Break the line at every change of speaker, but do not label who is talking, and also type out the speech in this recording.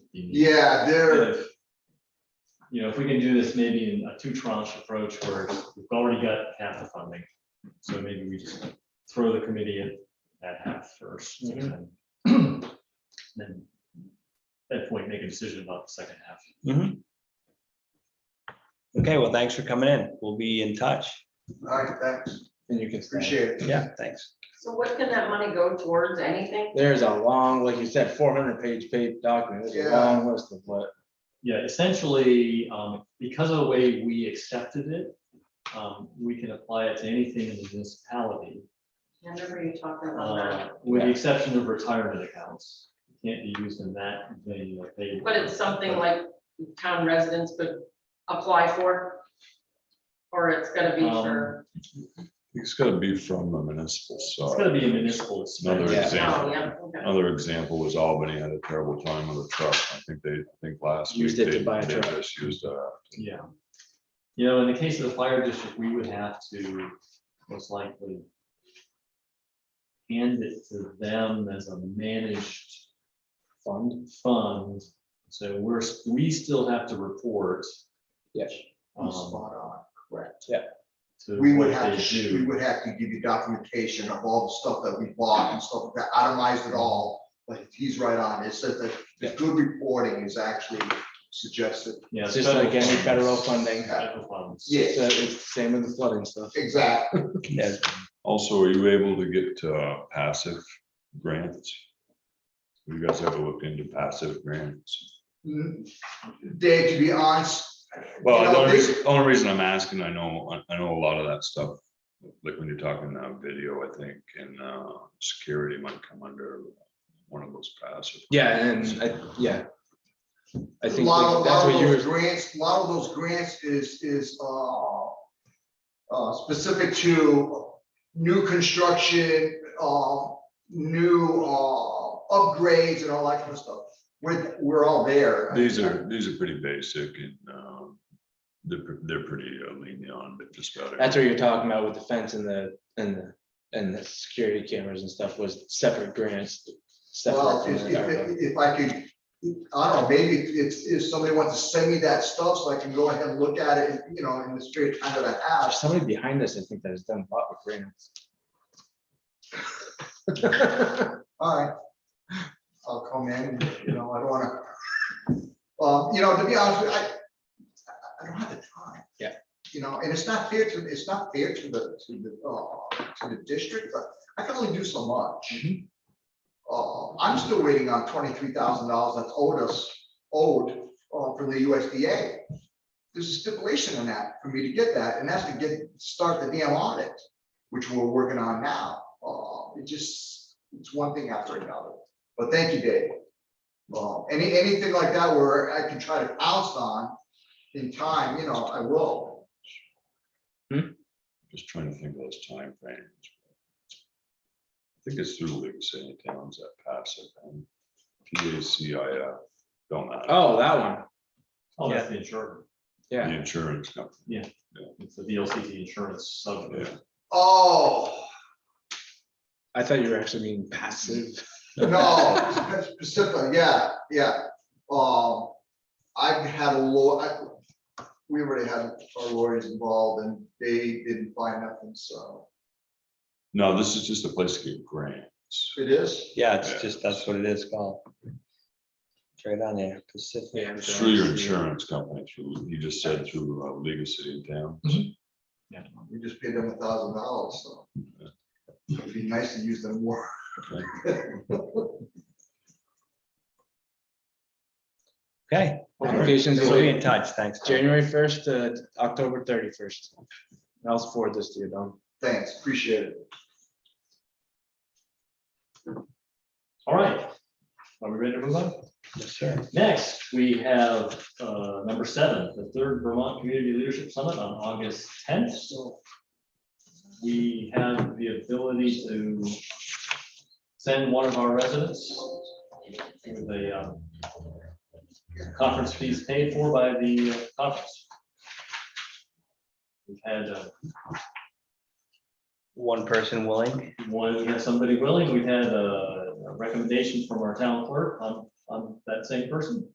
You
Yeah,
know,
there,
if- You know, if we can do this maybe in a two tranche approach where we've already got half the funding, so maybe we just throw the committee at, at half first. and Then then at that point, make a decision about the second half.
Mhm. Okay, well, thanks for coming in. We'll be in touch.
all right, thanks,
And you can.
appreciate it.
Yeah, thanks.
So what can that money go towards, anything?
There's a long, like you said, four hundred page paper document, there's a
Yeah.
long list of what,
Yeah, essentially, um, because of the way we accepted it, um, we can apply it to anything in the municipality.
I remember you talking about
uh,
that,
With the exception of retirement accounts, It can't be used in that venue like they.
but it's something like town residents could apply for? Or it's gonna be for,
It's gotta be from the municipal
It's
side.
gonna be a municipal expense.
Another
Yeah.
oh,
example,
yeah, okay.
another example was Albany had a terrible time with a truck. I think they, I think last week.
Used it to
they-
buy a
they
truck.
just Used uh, a
Yeah. You know, in the case of the fire district, we would have to most likely hand it to them as a managed
fund,
fund. So we're, we still have to report.
yes.
Spot
um,
on, correct.
to
We would
what
have
they
to, sh- we
do.
would have to give you documentation of all the stuff that we bought and stuff that itemized it all, but he's right on, it says that the
Yeah.
good reporting is actually suggested.
Yeah,
It's just
federal
like any
funds.
federal funding.
Federal funds.
So
Yeah.
it's the same with the flooding stuff.
Exactly,
Yeah,
Also, are you able to get uh, passive grants? You guys ever looked into passive grants?
Mm, Dave, to be honest, You
Well,
know,
the only
this-
reason, only reason I'm asking, I know, I- I know a lot of that stuff. Like when you're talking now video, I think, and uh, security might come under one of those passive.
Yeah, and I, yeah. I
a
think
lot of,
like that's
lot of
what you
those
were,
grants, a lot of those grants is, is, uh, uh, specific to new construction, uh, new, uh, upgrades and all that kind of stuff. We're, we're all there.
These are, these are pretty basic and um, they're, pre- they're pretty uh, lenient on, but just about.
that's what you're talking about with the fence and the, and the, and the security cameras and stuff was separate grants.
Well,
separate from
if,
the ARPA.
if, if I could, I don't know, maybe if, if somebody wants to send me that stuff so I can go ahead and look at it, you know, in the spirit of time that I have.
There's Somebody behind us, I think, that has done a lot with grants.
All right. I'll come in, you know, I don't wanna. Um, you know, to be honest, with you, I, I- I don't have the time.
Yeah.
You know, and it's not fair to, it's not fair to the, to the, uh, to the district, but I can only do so much. Uh, I'm still waiting on twenty-three thousand dollars that's owed us, owed, uh, from the USDA. There's a stipulation in that for me to get that, and that's to get, start the damn audit, which we're working on now. Uh, it just, it's one thing after another, but thank you, Dave. Uh, any, anything like that where I can try to pounce on in time, you know, I will.
Just trying to think of those timeframes. I think it's through League of City Towns that pass it and PACIF, don't matter.
Oh, that one,
Oh, that's the insurance.
The
yeah.
insurance company.
It's the VLCT insurance subject.
Oh,
I thought you were actually meaning passive.
no, specifically, yeah, yeah. Um, I've had a law, I, we already had our lawyers involved and they didn't find nothing, so
No, this is just a place to get grants.
it is.
yeah, it's
Yeah.
just, that's what it is called. It's right on there, Pacific.
Yeah, I'm
It's through your
sorry.
insurance company, through, you just said through uh, League of City and Towns.
Yeah.
We just paid them a thousand dollars, so it'd be nice to use them more.
Okay,
Applications
we'll be
will
in
be
touch, thanks.
January first to October thirty-first. I'll forward this to you, Don.
Thanks, appreciate it.
All right. Are we ready to move on?
Yes, sir.
Next, we have uh, number seven, the third Vermont Community Leadership Summit on August tenth. We have the ability to send one of our residents with a um, conference fees paid for by the uh, conference. We've had uh,
One person willing,
One, we had uh, somebody willing, we had a a recommendation from our town clerk on, on that same person.